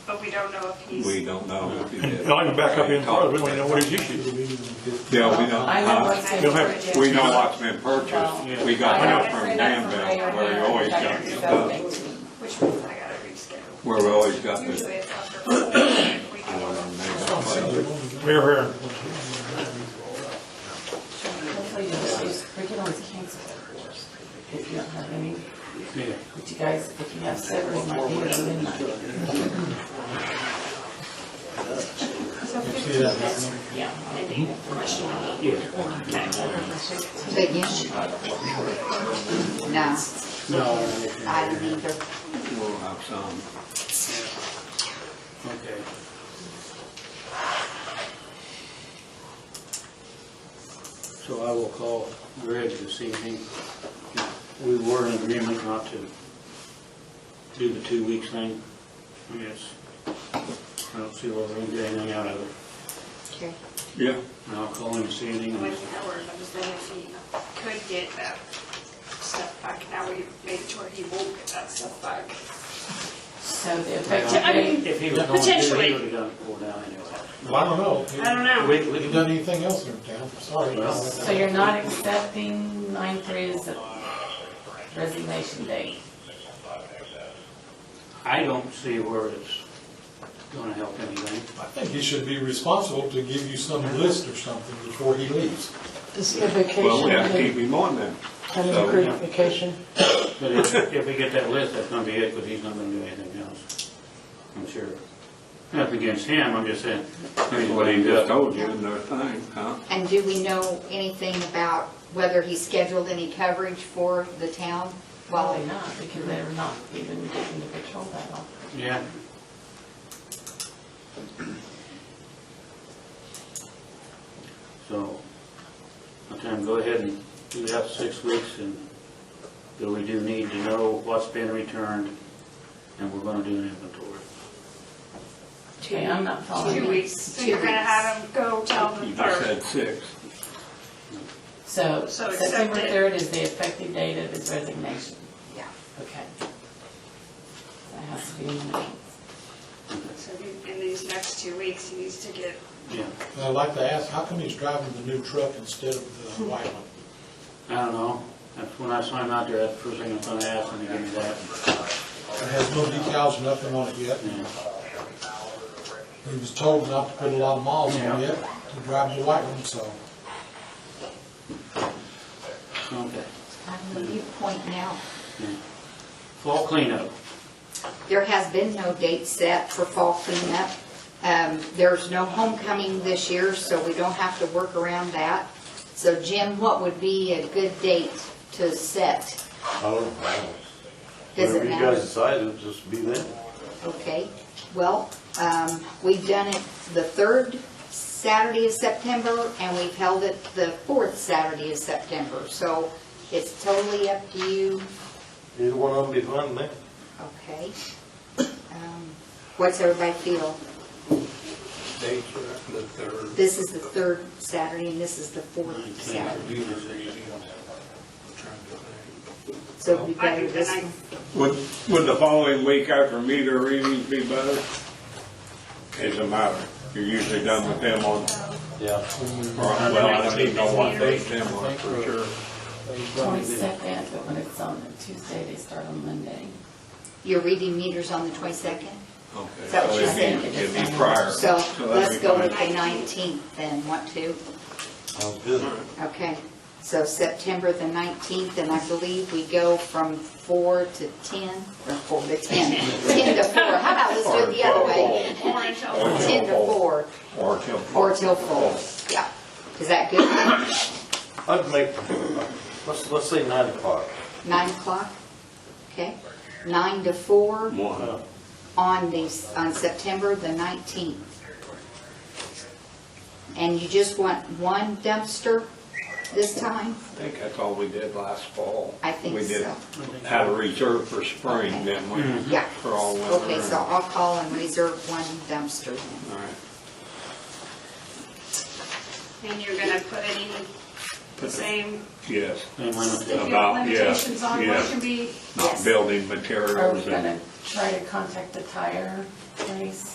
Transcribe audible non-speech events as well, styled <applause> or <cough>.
don't know if he's. We don't know if he did. And I can back up in front, we don't even know what his issue is. Yeah, we don't. uh, I know what's You'll in have- purchase. We know what's been purchased. We got I that know. from Danville, where we always got the stuff. Which means I gotta reschedule. Where we always got the, Usually it's after. we I can- don't know, maybe that's like- Mayor Herron, Hopefully this is curriculum is canceled. If you don't have any, but you guys, if you have several, it might be at midnight. So 15 minutes. Yeah. But you should. No. No, I don't either. we'll have some. okay. So I will call Greg this evening. We were in agreement not to do the two weeks thing. I guess, I don't see where we're gonna get anything out of it. Okay. Yeah, And I'll call him this evening. and- With Howard, I was thinking if he could get that stuff back, now we made it to where he won't get that stuff back. So the I effective mean, If he was going to, he Potentially. would've done it pulled down anyway. Well, I don't know. I don't know. We, Have you we, done anything else in town? Sorry. Well- date, so you're not accepting nine three as a resignation date. I don't see where it's gonna help anything. I think he should be responsible to give you some list or something before he leaves. Is there well, we have to keep vacation, him on then. unapproved vacation? But if, if we get that list, that's gonna be it, because he's not gonna do anything else, I'm sure. Nothing against him, I'm just saying, he's What he just told you in their thing, huh? And do we know anything about whether he scheduled any coverage for the town? Probably Well, not, because they're not even getting the patrol that often. Yeah. So, I'll tell him, go ahead and do that six weeks, and, but we do need to know what's been returned, and we're gonna do an inventory. Okay, I'm not following. Two you. weeks, so you're gonna have him go tell You them just first. said six. So So accept September it. third is the effective date of his resignation. yeah. Okay. That has to be in the minutes. So he- in these next two weeks, he needs to get, Yeah, And I'd like to ask, how come he's driving the new truck instead of the white one? I don't know, that's when I saw him out there, that's the first thing I'm gonna ask, him to give me that. It has no decals, nothing on it yet. Yeah. He was told not to put a lot of miles on it, yet, to drive the white one, so. Okay. I'm going you point out, Fall cleanup. there has been no date set for fall cleanup. Um, There's no homecoming this year, so we don't have to work around that. So Jim, what would be a good date to set? Oh, wow. Does it Whatever you guys matter? decide, it'll just be then. Okay, well, um, we've done it the third Saturday of September, and we've held it the fourth Saturday of September, so it's totally up to you, Either one of them be fine then. okay? Um, What's everybody feel? This is the third Saturday, and this is the fourth Saturday, so it'd be I better think this the one. ninth, Would, would the following week after meter readings be better? Doesn't matter. You're usually done with them on, Yeah. or, well, I don't even know what date them are for sure. Twenty-second, but when it's on a Tuesday, they start on Monday. You're reading meters on the 22nd, Okay, That so was it'd just- be, it'd be prior. so that'd let's be go fine. with the 19th then, what to? Sounds good. Okay, so September the 19th, and I believe we go from 4 to 10, or 4 to <laughs> 10, 10 to 4, how about let's do it the other way? or until Or till 10 to fall. 4, Or till. fall. or till 4, yeah. Is that good? I'd make, let's, let's say nine o'clock. 9 o'clock? Okay, 9 to 4 One. on these, on September the 19th. And you just want one dumpster this time? I think that's all we did last fall. I think We did so. Had a reserve for spring, didn't we? Yeah. For all winter. Okay, so I'll call and reserve one dumpster then. All right. and you're gonna put any same Yes, Same lineup. stiff About, yeah, limitations on what yeah. can be not Yes. building Are we materials and. gonna try to contact the tire place?